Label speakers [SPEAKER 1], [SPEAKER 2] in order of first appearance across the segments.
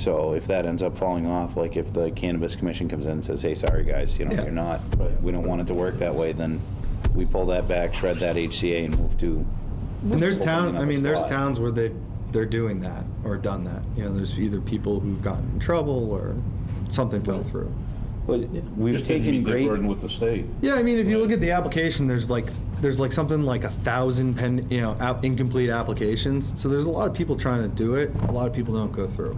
[SPEAKER 1] So if that ends up falling off, like if the cannabis commission comes in and says, hey, sorry, guys, you know,
[SPEAKER 2] Yeah.
[SPEAKER 1] you're not, but we don't want it to work that way, then we pull that back, shred that HCA and move to,
[SPEAKER 2] And there's
[SPEAKER 1] Opening
[SPEAKER 2] town.
[SPEAKER 1] up
[SPEAKER 2] I
[SPEAKER 1] a
[SPEAKER 2] mean, there's
[SPEAKER 1] slot.
[SPEAKER 2] towns where they they're doing that or done that. You know, there's either people who've gotten in trouble or something fell through.
[SPEAKER 1] but we've
[SPEAKER 3] Just didn't
[SPEAKER 1] taken
[SPEAKER 3] meet their
[SPEAKER 1] great.
[SPEAKER 3] burden with the state.
[SPEAKER 2] Yeah, I mean, if you look at the application, there's like there's like something like a thousand pen, you know, app, incomplete applications. So there's a lot of people trying to do it. A lot of people don't go through.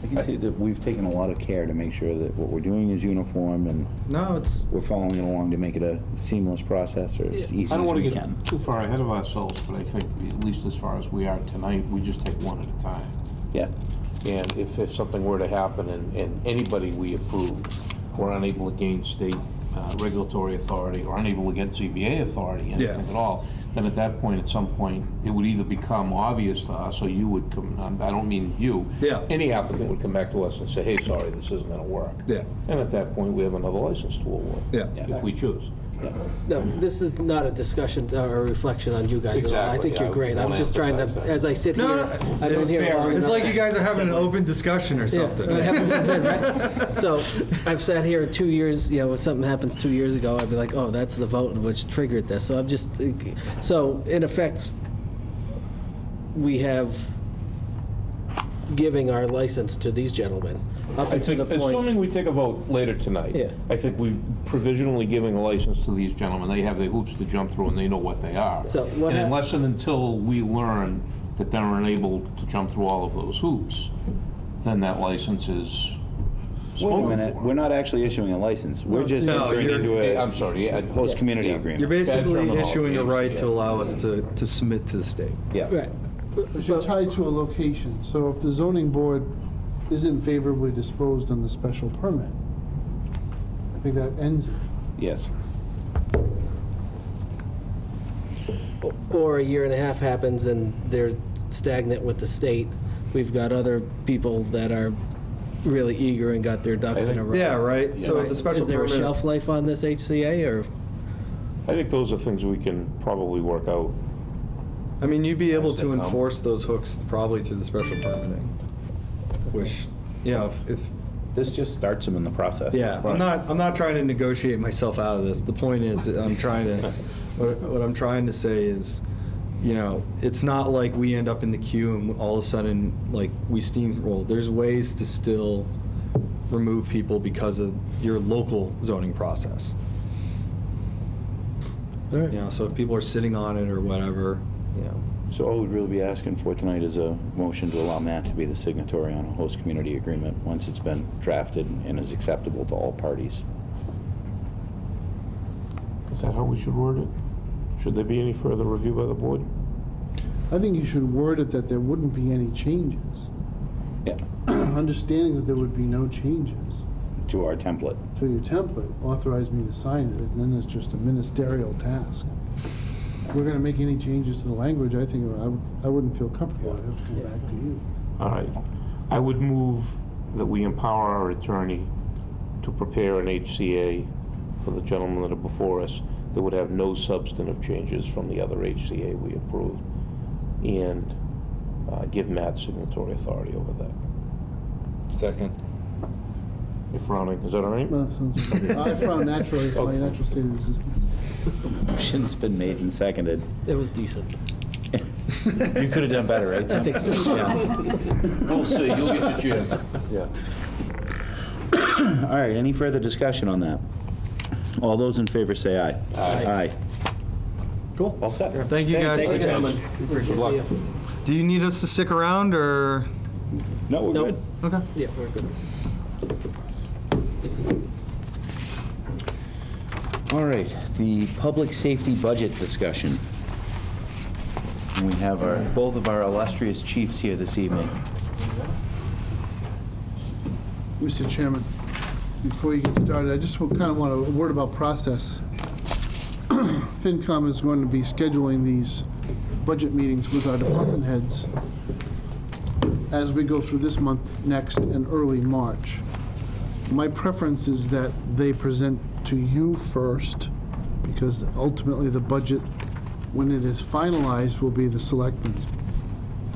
[SPEAKER 1] I can see that we've taken a lot of care to make sure that what we're doing is uniform and
[SPEAKER 2] No, it's
[SPEAKER 1] we're following it along to make it a seamless process or as easy
[SPEAKER 3] I don't
[SPEAKER 1] as
[SPEAKER 3] want
[SPEAKER 1] we
[SPEAKER 3] to
[SPEAKER 1] can.
[SPEAKER 3] get too far ahead of ourselves, but I think, at least as far as we are tonight, we just take one at a time.
[SPEAKER 1] Yeah.
[SPEAKER 3] And if, if something were to happen and, and anybody we approve were unable to gain state uh, regulatory authority or unable to get ZBA authority, anything
[SPEAKER 2] Yeah.
[SPEAKER 3] at all, then at that point, at some point, it would either become obvious to us or you would come, um, I don't mean you.
[SPEAKER 2] Yeah.
[SPEAKER 3] Any applicant would come back to us and say, hey, sorry, this isn't going to work.
[SPEAKER 2] yeah,
[SPEAKER 3] And at that point, we have another license to award,
[SPEAKER 2] yeah.
[SPEAKER 1] Yeah.
[SPEAKER 3] if we choose.
[SPEAKER 4] No, this is not a discussion or a reflection on you guys at all. I
[SPEAKER 3] Exactly,
[SPEAKER 4] think you're
[SPEAKER 3] yeah, I
[SPEAKER 4] great. I'm
[SPEAKER 3] wanna
[SPEAKER 4] just trying to,
[SPEAKER 3] emphasize that.
[SPEAKER 4] as I sit here,
[SPEAKER 2] No, no,
[SPEAKER 4] I've been
[SPEAKER 2] it's,
[SPEAKER 4] here long
[SPEAKER 2] it's
[SPEAKER 4] enough.
[SPEAKER 2] like you guys are having an open discussion or something.
[SPEAKER 4] Yeah, uh, heaven forbid, right? So I've sat here two years, you know, if something happens two years ago, I'd be like, oh, that's the vote which triggered this. So I'm just, so in effect, we have giving our license to these gentlemen up
[SPEAKER 3] I
[SPEAKER 4] until
[SPEAKER 3] think,
[SPEAKER 4] the point.
[SPEAKER 3] assuming we take a vote later tonight.
[SPEAKER 4] Yeah.
[SPEAKER 3] I think we're provisionally giving a license to these gentlemen. They have their hoops to jump through and they know what they are.
[SPEAKER 4] So what
[SPEAKER 3] And
[SPEAKER 4] hap-
[SPEAKER 3] unless and until we learn that they're unable to jump through all of those hoops, then that license is
[SPEAKER 1] Wait a
[SPEAKER 3] spoken
[SPEAKER 1] minute, we're
[SPEAKER 3] for.
[SPEAKER 1] not actually issuing a license. We're just
[SPEAKER 2] No,
[SPEAKER 1] entering
[SPEAKER 2] you're-
[SPEAKER 1] into
[SPEAKER 3] Eh, I'm
[SPEAKER 1] a
[SPEAKER 3] sorry, yeah.
[SPEAKER 1] host community
[SPEAKER 3] Yeah.
[SPEAKER 2] You're
[SPEAKER 1] agreement.
[SPEAKER 2] basically
[SPEAKER 3] terminology,
[SPEAKER 2] issuing a right to
[SPEAKER 3] yeah.
[SPEAKER 2] allow us to, to submit to the state.
[SPEAKER 1] Yeah.
[SPEAKER 4] Right.
[SPEAKER 5] But you're tied to a location, so if the zoning board isn't favorably disposed on the special permit, I think that ends it.
[SPEAKER 1] Yes.
[SPEAKER 4] or a year and a half happens and they're stagnant with the state, we've got other people that are really eager and got their ducks in a row.
[SPEAKER 2] Yeah, right. So the special
[SPEAKER 4] Is there a
[SPEAKER 2] permit-
[SPEAKER 4] shelf life on this HCA or?
[SPEAKER 3] I think those are things we can probably work out.
[SPEAKER 2] I mean, you'd be able
[SPEAKER 3] Does
[SPEAKER 2] to
[SPEAKER 3] that come?
[SPEAKER 2] enforce those hooks probably through the special permitting, which, you know, if- if,
[SPEAKER 1] This just starts them in the process.
[SPEAKER 2] yeah, I'm not, I'm not trying to negotiate myself out of this. The point is, that I'm trying to, what what I'm trying to say is, you know, it's not like we end up in the queue and all of a sudden, like, we steamroll. There's ways to still remove people because of your local zoning process.
[SPEAKER 4] All
[SPEAKER 2] You
[SPEAKER 4] right.
[SPEAKER 2] know, so if people are sitting on it or whatever, you know,
[SPEAKER 1] So all we'd really be asking for tonight is a motion to allow Matt to be the signatory on a host community agreement once it's been drafted and is acceptable to all parties.
[SPEAKER 3] Is that how we should word it? Should there be any further review by the board?
[SPEAKER 5] I think you should word it that there wouldn't be any changes.
[SPEAKER 1] Yeah.
[SPEAKER 5] Understanding that there would be no changes
[SPEAKER 1] To our template.
[SPEAKER 5] to your template, authorize me to sign it, and then it's just a ministerial task. If we're gonna make any changes to the language, I think I, would- I wouldn't feel comfortable, I'd have to come back to you.
[SPEAKER 3] All right. I would move that we empower our attorney to prepare an HCA for the gentlemen that are before us that would have no substantive changes from the other HCA we approved, and uh, give Matt signatory authority over that.
[SPEAKER 6] Second.
[SPEAKER 3] You're frowning, is that all right?
[SPEAKER 5] Well, sounds- I found naturally, it's my
[SPEAKER 3] Okay.
[SPEAKER 5] natural state of existence.
[SPEAKER 1] Motion's been made and seconded.
[SPEAKER 4] It was decent.
[SPEAKER 1] You could have done better, right?
[SPEAKER 4] I think so.
[SPEAKER 3] We'll see, you'll get your chance. Yeah.
[SPEAKER 1] All right, any further discussion on that? All those in favor say aye. Aye.
[SPEAKER 2] Cool.
[SPEAKER 1] All set.
[SPEAKER 2] Thank you guys.
[SPEAKER 1] Thank you, gentlemen.
[SPEAKER 4] Good
[SPEAKER 3] luck.
[SPEAKER 2] Do you need us to stick around or?
[SPEAKER 1] No, we're
[SPEAKER 4] Nope.
[SPEAKER 1] good.
[SPEAKER 2] Okay.
[SPEAKER 4] Yeah, we're good.
[SPEAKER 1] All right, the public safety budget discussion. And We have our, both of our illustrious chiefs here this evening.
[SPEAKER 5] Mr. Chairman, before you get started, I just kind of want to, a word about process. FinCom is going to be scheduling these budget meetings with our department heads as we go through this month, next, and early March. My preference is that they present to you first, because ultimately the budget, when it is finalized, will be the selectmen's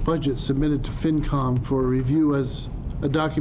[SPEAKER 5] budget submitted to FinCom for review as a document